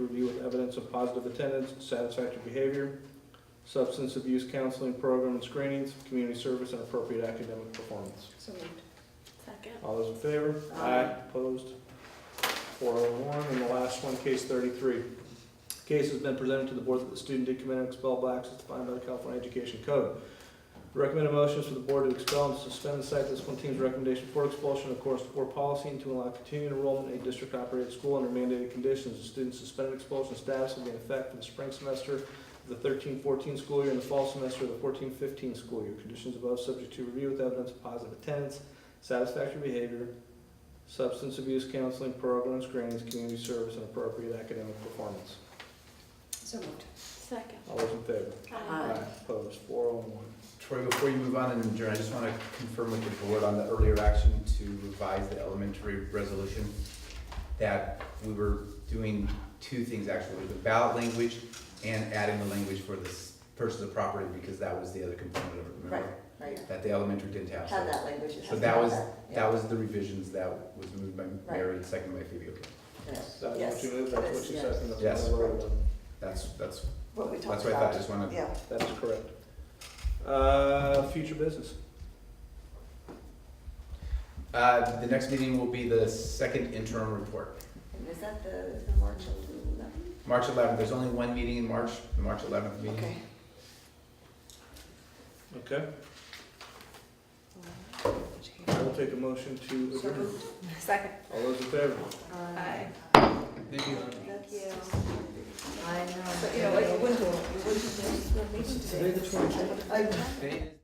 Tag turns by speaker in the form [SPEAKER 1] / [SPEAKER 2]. [SPEAKER 1] review with evidence of positive attendance, satisfactory behavior, substance abuse counseling program and screenings, community service, and appropriate academic performance.
[SPEAKER 2] So moved.
[SPEAKER 3] Second.
[SPEAKER 1] All those in favor?
[SPEAKER 2] Aye.
[SPEAKER 1] Opposed? Four oh one, and the last one, case thirty-three. Case has been presented to the board that the student did commit an expellable act as defined by the California Education Code. The Recommended motion is for the board to expel and suspend and cite this one team's recommendation for expulsion of course for policy and to allow continued enrollment in a district-operated school under mandated conditions. The student's suspended expulsion status will be in effect for the spring semester of the thirteen fourteen school year and the fall semester of the fourteen fifteen school year. Conditions above subject to review with evidence of positive attendance, satisfactory behavior, substance abuse counseling programs, screenings, community service, and appropriate academic performance.
[SPEAKER 2] So moved.
[SPEAKER 3] Second.
[SPEAKER 1] All those in favor?
[SPEAKER 2] Aye.
[SPEAKER 1] Opposed, four oh one.
[SPEAKER 4] Troy, before you move on and adjourn, I just want to confirm with the board on the earlier action to revise the elementary resolution, that we were doing two things actually, the ballot language and adding the language for this purchase of property, because that was the other component of it, remember?
[SPEAKER 2] Right.
[SPEAKER 4] That the elementary didn't have.
[SPEAKER 5] Have that language. it has
[SPEAKER 4] So
[SPEAKER 5] to
[SPEAKER 4] that
[SPEAKER 5] have
[SPEAKER 4] was-
[SPEAKER 5] yeah.
[SPEAKER 4] That was the revisions that was moved by Mary, and seconded by Phoebe, okay.
[SPEAKER 5] Yes.
[SPEAKER 1] That's what
[SPEAKER 5] Yes.
[SPEAKER 1] you moved, that's what you
[SPEAKER 5] Yes.
[SPEAKER 1] said, and that's
[SPEAKER 4] Yes.
[SPEAKER 1] what I wrote down.
[SPEAKER 4] That's, that's,
[SPEAKER 5] What we
[SPEAKER 4] that's
[SPEAKER 5] talked
[SPEAKER 4] what I thought, I
[SPEAKER 5] about.
[SPEAKER 4] just want to,
[SPEAKER 5] Yeah,
[SPEAKER 1] That is correct. Uh, future business.
[SPEAKER 4] uh, the next meeting will be the second interim report.
[SPEAKER 5] and is that the, the March eleventh?
[SPEAKER 4] March eleventh, there's only one meeting in March, the March eleventh meeting.
[SPEAKER 5] Okay.
[SPEAKER 1] Okay, I will take a motion to
[SPEAKER 2] So
[SPEAKER 1] adjourn.
[SPEAKER 2] moved.
[SPEAKER 3] Second.
[SPEAKER 1] All those in favor?
[SPEAKER 2] Aye.
[SPEAKER 4] Thank you.
[SPEAKER 5] That's-
[SPEAKER 3] Yeah.
[SPEAKER 5] I know.
[SPEAKER 2] But, you know, like, you wouldn't,
[SPEAKER 5] you wouldn't,
[SPEAKER 2] Today the 22nd.
[SPEAKER 5] I
[SPEAKER 4] Thank-